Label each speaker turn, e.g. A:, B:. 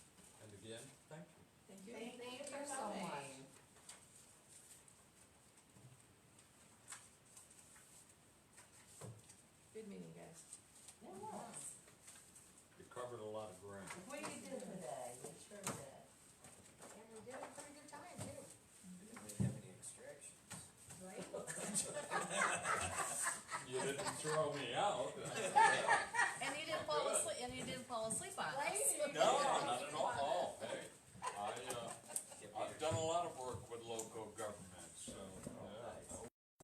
A: meeting, guys.
B: It was.
C: You covered a lot of ground.
B: We did today, we sure did.
D: And we did have a pretty good time too.
E: We didn't really have any extractions.
D: Right.
C: You didn't throw me out.
A: And you didn't fall asleep, and you didn't fall asleep on us.
D: Right?
C: No, uh,